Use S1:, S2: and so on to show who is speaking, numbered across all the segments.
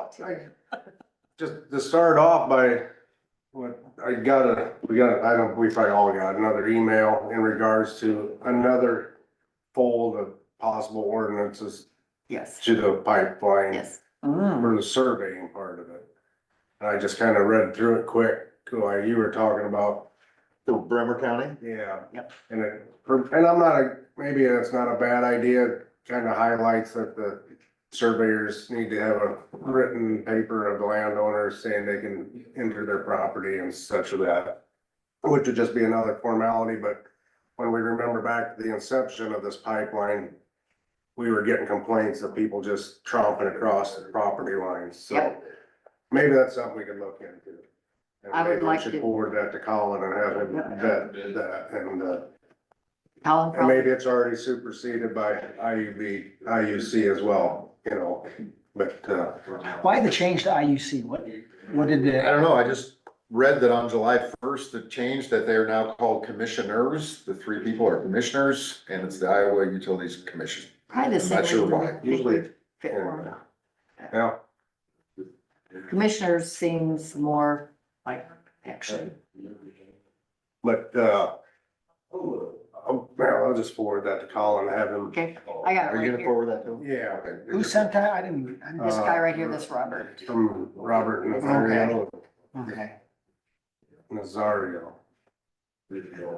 S1: out today.
S2: Just to start off by, what, I got a, we got, I don't, we probably all got another email in regards to another fold of possible ordinances
S1: Yes,
S2: to the pipeline
S1: yes.
S2: for the surveying part of it. And I just kind of read through it quick, like you were talking about
S3: So Bremer County?
S2: Yeah.
S1: Yep.
S2: And it, and I'm not, a maybe it's not a bad idea, kind of highlights that the surveyors need to have a written paper of the landowners saying they can enter their property and such of that. Which would just be another formality, but when we remember back to the inception of this pipeline, we were getting complaints of people just tromping across the property lines, so
S1: Yep.
S2: maybe that's something we could look into. And
S1: I would
S2: maybe we
S1: like
S2: should
S1: to-
S2: Forward that to Colin and have him vet that, and, uh,
S1: Colin
S2: and
S1: probably,
S2: maybe it's already superseded by IUB, IUC as well, you know, but, uh,
S4: Why the change to IUC? What, what did
S3: I
S4: the,
S3: don't know, I just read that on July first, it changed that they are now called commissioners. The three people are commissioners and it's the Iowa Utilities Commission.
S1: probably the
S3: I'm not sure
S1: same
S3: why.
S1: way.
S2: usually,
S1: Fit
S2: yeah.
S1: more.
S2: Yeah,
S1: Commissioners seems more like action.
S2: but, uh, oh, well, I'll just forward that to Colin, and have him,
S1: Okay, I got it
S3: Are you
S1: right
S3: gonna
S1: here.
S3: forward that to them?
S2: yeah.
S4: who sent that? I didn't, I
S1: This
S4: didn't,
S1: guy right here,
S3: uh,
S1: this Robert.
S2: From Robert Nazario,
S4: Okay. okay.
S2: Nazario.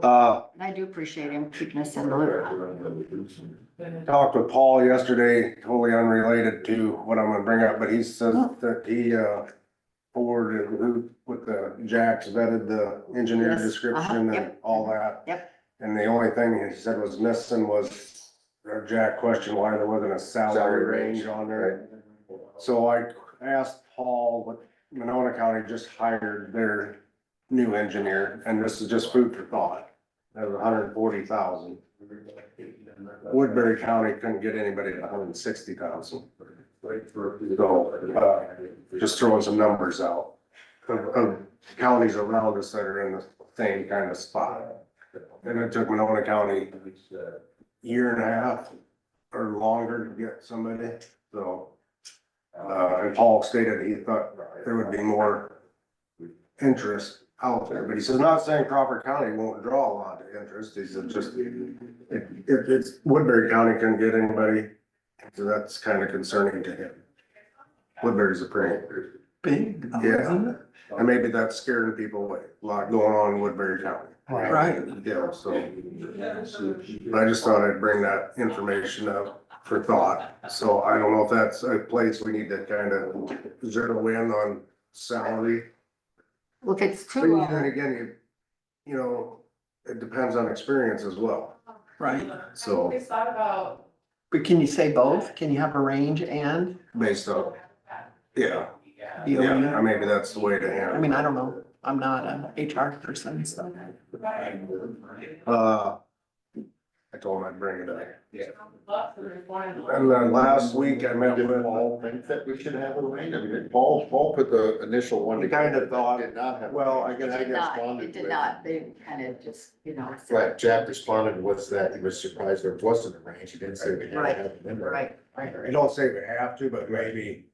S2: Uh,
S1: And I do appreciate him keeping us in the loop.
S2: talked with Paul yesterday, totally unrelated to what I'm gonna bring up, but he says
S1: Oh.
S2: that he, uh, forwarded who, with the Jacks vetted the engineer
S1: Yes, uh-huh,
S2: description and
S1: yep.
S2: all that.
S1: Yep.
S2: And the only thing he said was missing was, or Jack questioned why there wasn't a salary
S3: Salary
S2: range
S3: range,
S2: on there.
S3: Right.
S2: So I asked Paul, what Monona County just hired their new engineer, and this is just food for thought. That was hundred and forty thousand. Woodbury County couldn't get anybody at hundred and sixty thousand. So, uh, just throwing some numbers out of, of counties around us that are in the same kind of spot. And it took Monona County a year and a half or longer to get somebody, so. Uh, and Paul stated he thought there would be more interest out there, but he says, not saying Crawford County won't draw a lot of interest, he said, just. If, if it's Woodbury County can get anybody, so that's kind of concerning to him. Woodbury's a pretty,
S5: Big,
S2: isn't
S5: yeah,
S2: and maybe that's scaring people away, a lot going on in Woodbury County.
S5: right.
S2: Yeah, so, but I just thought I'd bring that information up for thought, so I don't know if that's a place we need to kind of zero in on salary.
S1: Well, if it's
S2: But
S1: too
S2: then
S1: low,
S2: again, you, you know, it depends on experience as well,
S5: Right,
S2: so,
S5: but can you say both? Can you have a range and
S2: based on, yeah,
S5: the
S2: yeah,
S5: arena?
S2: maybe that's the way to
S5: I
S2: handle it.
S5: mean, I don't know, I'm not an HR person, so.
S2: Uh, I told him I'd bring it up. And then last week I met
S3: Did
S2: with,
S3: Paul think that we should have a range? I mean, Paul, Paul put the initial one
S2: He
S3: together.
S2: kinda thought-
S3: Did not have.
S2: well, I
S1: it
S2: guess,
S1: did not,
S3: responded
S1: it did
S3: with-
S1: not. They kind of just, you know, said-
S3: Right, Jack responded, what's that? He was surprised there wasn't a range. He didn't say we had to
S1: Right,
S3: have a number.
S1: Right, right,
S2: I don't say we have to, but maybe.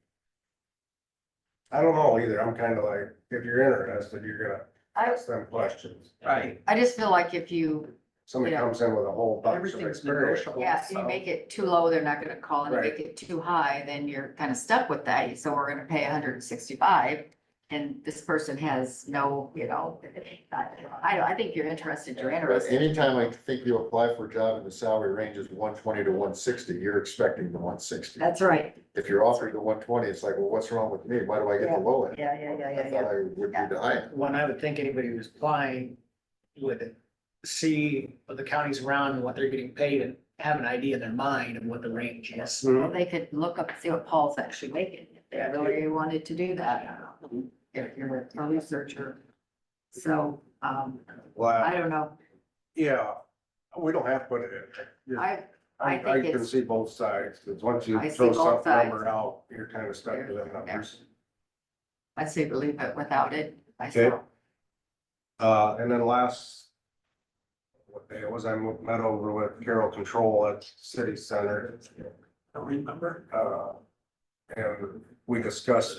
S2: I don't know either. I'm kind of like, if you're interested, you're gonna
S1: I-
S2: ask them questions.
S5: Right.
S1: I just feel like if you,
S2: Somebody
S1: Yeah.
S2: comes in with a whole bunch of
S5: Everything's
S2: experience.
S5: negotiable.
S1: yeah, if you make it too low, they're not gonna call, and if you
S2: Right.
S1: make it too high, then you're kind of stuck with that, so we're gonna pay hundred and sixty-five. And this person has no, you know, I, don't- I think you're interested, you're
S3: But
S1: interested,
S3: anytime I think you apply for a job and the salary range is one twenty to one sixty, you're expecting the one sixty.
S1: that's right,
S3: If you're offered the one twenty, it's like, well, what's wrong with me? Why do I get
S1: Yeah.
S3: the low end?
S1: yeah, yeah, yeah, yeah,
S3: I
S1: yeah.
S3: thought I would be the high end.
S6: one I would think anybody who's applying would see what the counties around and what they're getting paid and have an idea in their mind of what the range is.
S1: Well, they could look up, see what Paul's actually making, if they really wanted to do that, if you're a researcher. So, um,
S2: Mm-hmm. Well,
S1: I don't know,
S2: yeah, we don't have to put it in.
S1: I, I
S2: I,
S1: think
S2: I can
S1: it's-
S2: see both sides, because once you
S1: I see
S2: throw
S1: both
S2: some
S1: sides.
S2: number out, you're kind of stuck with that
S1: Yeah.
S2: number.
S1: I say believe it without it
S2: Okay.
S1: myself.
S2: Uh, and then last. What day it was, I met over with Carol Control at City Center,
S5: Don't remember.
S2: uh. And we discussed